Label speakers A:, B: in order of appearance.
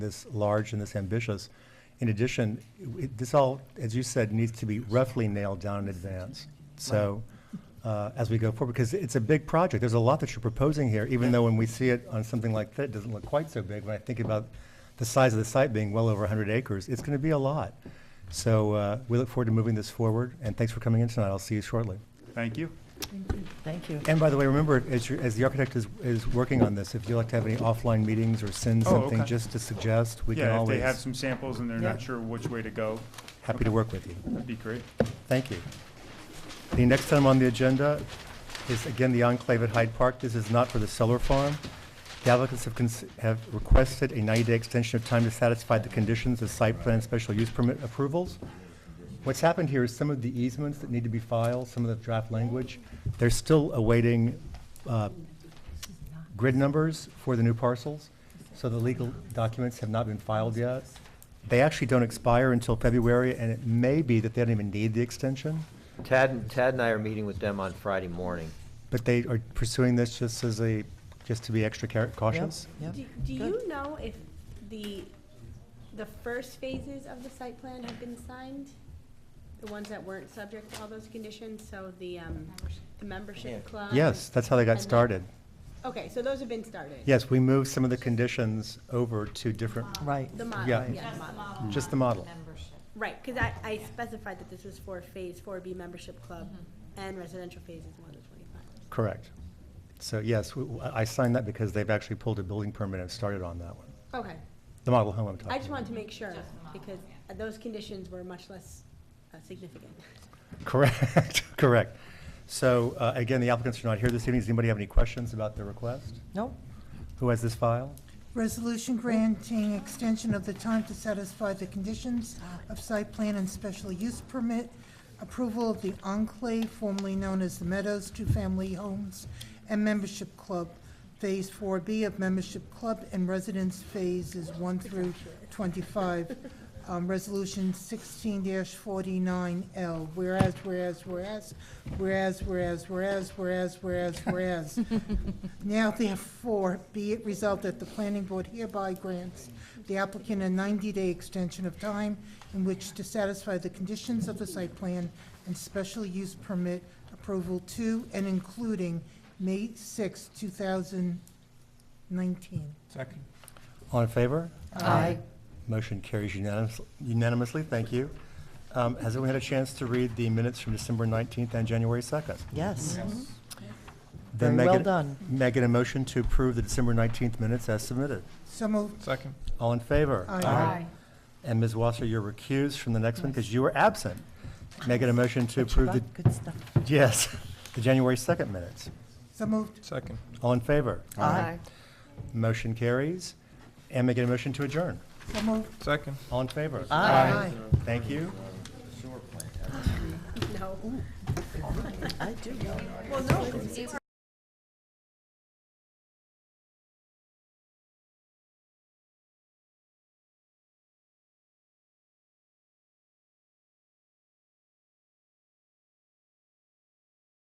A: this large and this ambitious. In addition, it- this all, as you said, needs to be roughly nailed down in advance. So, uh, as we go forward, because it's a big project, there's a lot that you're proposing here, even though when we see it on something like that, it doesn't look quite so big. When I think about the size of the site being well over 100 acres, it's going to be a lot. So uh, we look forward to moving this forward, and thanks for coming in tonight. I'll see you shortly.
B: Thank you.
C: Thank you.
A: And by the way, remember, as, you- as the architect is, is working on this, if you'd like to have any offline meetings or send
B: Oh,
A: something
B: okay.
A: just to suggest, we can
B: Yeah, if they
A: always,
B: have some samples and they're not
C: Yeah.
B: sure which way to go,
A: happy to work with you.
B: that'd be great.
A: Thank you. The next item on the agenda is again the enclave at Hyde Park. This is not for the solar farm. The applicants have, cons- have requested a 90-day extension of time to satisfy the conditions of site plan and special use permit approvals. What's happened here is some of the easements that need to be filed, some of the draft language, they're still awaiting uh, grid numbers for the new parcels, so the legal documents have not been filed yet. They actually don't expire until February, and it may be that they don't even need the extension,
D: Tad, Tad and I are meeting with them on Friday morning.
A: but they are pursuing this just as a, just to be extra care- cautious.
C: Yep,
E: Do do
C: good.
E: you know if the, the first phases of the site plan have been signed? The ones that weren't subject to all those conditions, so the, um, the membership club?
A: Yes, that's how they
E: and
A: got
E: then-
A: started.
E: Okay, so those have been started?
A: Yes, we moved some of the conditions over to different,
C: Right.
E: The model,
A: Yeah.
E: yeah, the model.
A: just the model.
E: Right, because I, I specified that this was for Phase Four B membership club and residential phases one to twenty-five.
A: Correct. So yes, w- w- I signed that because they've actually pulled a building permit and started on that one.
E: Okay,
A: The model home I'm talking about.
E: I just wanted to make sure, because those conditions were much less uh, significant.
A: Correct, correct. So uh, again, the applicants are not here this evening. Does anybody have any questions about their request?
C: Nope.
A: Who has this file?
F: Resolution granting extension of the time to satisfy the conditions of site plan and special use permit, approval of the enclave formerly known as the Meadows Two Family Homes and Membership Club, Phase Four B of Membership Club and Residence Phases One through Twenty-five, um, Resolution sixteen forty-nine L. Whereas, whereas, whereas, whereas, whereas, whereas, whereas, whereas, whereas, Now therefore, be it resolved that the planning board hereby grants the applicant a 90-day extension of time in which to satisfy the conditions of the site plan and special use permit approval to and including May 6, 2019.
B: Second.
A: All in favor?
C: Aye.
A: Motion carries unanimous- unanimously. Thank you. Um, Has anyone had a chance to read the minutes from December 19th and January 2nd?
C: Yes.
A: Then
C: Very well
A: Megan-
C: done.
A: Megan, a motion to approve the December 19th minutes as submitted.
F: So moved.
B: Second.
A: All in favor?
F: Aye. Aye.
A: And Ms. Wasser, you're recused from the next one because you were absent. Megan, a motion to
C: But you
A: approve the,
C: got Good stuff.
A: yes, the January 2nd minutes.
F: So moved.
B: Second.
A: All in favor?
C: Aye.
A: Motion carries. And may I get a motion to adjourn?
F: So moved.
B: Second.
A: All in favor?
C: Aye.
F: Aye.
A: Thank you.
E: No.
C: I do.
E: Well, no, because we were